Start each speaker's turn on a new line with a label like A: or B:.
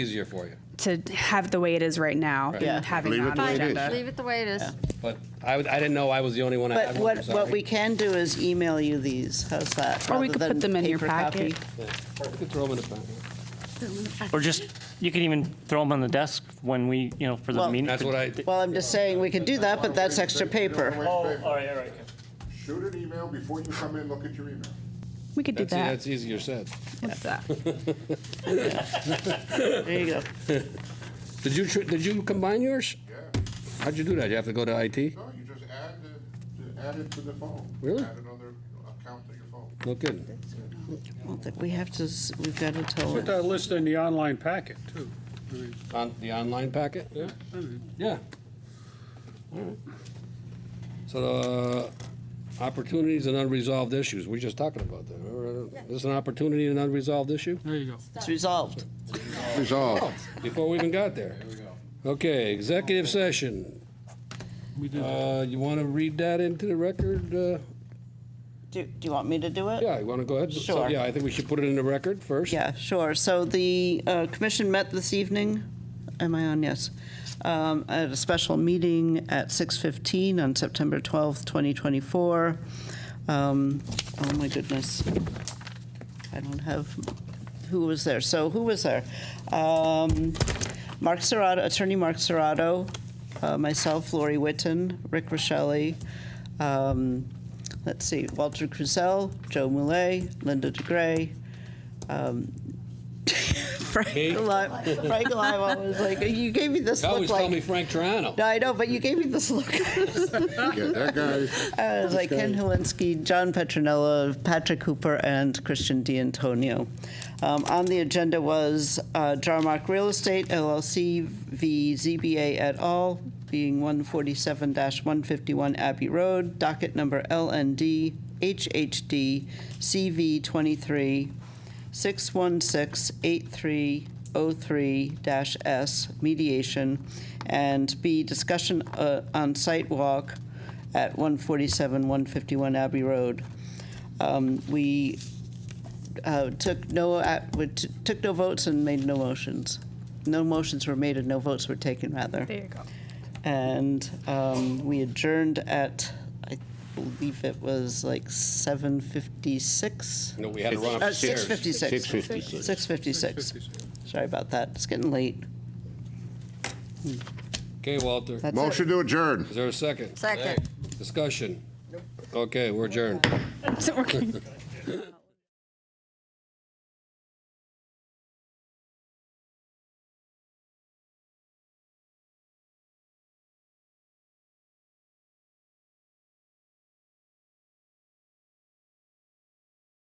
A: easier for you.
B: to have the way it is right now
C: Yeah.
B: and having
D: Leave
B: it
D: it
B: on
D: the way
B: the
D: it is.
B: agenda.
E: Leave it the way it is.
A: But I, would- I didn't know I was the only one. I had
C: But
A: one, I'm
C: what,
A: sorry.
C: what we can do is email you these, how's that?
B: Or we
C: rather
B: could
C: than
B: put them in your
C: paper copy?
B: packet.
A: We could throw 'em in the packet.
F: Or just, you can even throw them on the desk when we, you know, for the
C: Well-
F: meeting.
A: That's what I,
C: Well, I'm just saying, we could do that, but that's extra paper.
F: Oh, all right, all right.
D: Shoot an email before you come in, look at your email.
B: We could do
A: that's,
B: that.
A: that's easier said.
B: What's that?
C: There you go.
A: Did you, tr- did you combine yours?
D: Yeah,
A: How'd you do that? You have to go to IT?
D: no, you just add the, add it to the phone.
A: Really?
D: Add another account to your phone.
A: No kidding.
C: I don't think We have to, s- we've got to tell
G: Put
C: them.
G: that list in the online packet, too. I mean,
A: On, the online packet?
G: yeah, I mean,
A: Yeah. All right. So, uh, opportunities and unresolved issues, we were just talking about that. Remember? This is an opportunity and unresolved issue?
G: There you go.
C: It's resolved.
D: Resolved.
A: Before we even got there. Okay, executive session.
G: We did that.
A: Uh, you want to read that into the record? Uh,
C: Do do you want me to do it?
A: Yeah, you want to go ahead? So,
C: Sure.
A: Yeah, I think we should put it in the record first.
C: Yeah, sure. So the uh, commission met this evening, am I on? Yes. Um, At a special meeting at 6:15 on September 12th, 2024. Um, Oh, my goodness. I don't have, who was there? So who was there? Um, Mark Serrato, Attorney Mark Serrato, uh, myself, Lori Witten, Rick Rochelle, um, let's see, Walter Cruzel, Joe Mulay, Linda DeGray, um, Frank
A: Me?
C: Alive. Frank Alive always like, you gave me this
A: You
C: look
A: always tell me
C: like.
A: Frank Toronto.
C: No, I know, but you gave me this look.
D: Yeah, that guy.
C: I was Uh, like Ken Helinski, John Petronella, Patrick Hooper, and Christian D'Antonio. Um, on the agenda was uh, Jarmark Real Estate LLC v. ZBA et al., being 147-151 Abbey Road, docket number LND HHD CV 23 616-8303-S, mediation, and B, discussion uh, on site walk at 147, 151 Abbey Road. Um, We uh, took no, ac- we t- took no votes and made no motions. No motions were made and no votes were taken, rather.
B: There you go.
C: And um, we adjourned at, I believe it was like 7:56?
A: No, we had to run
C: Uh,
A: upstairs.
C: 6:56.
D: 6:56.
C: 6:56. Sorry about that. It's getting late.
A: Okay, Walter.
C: That's it.
D: Motion to adjourn.
A: Is there a second?
E: Second.
A: Discussion? Okay, we're adjourned.
B: Is it working?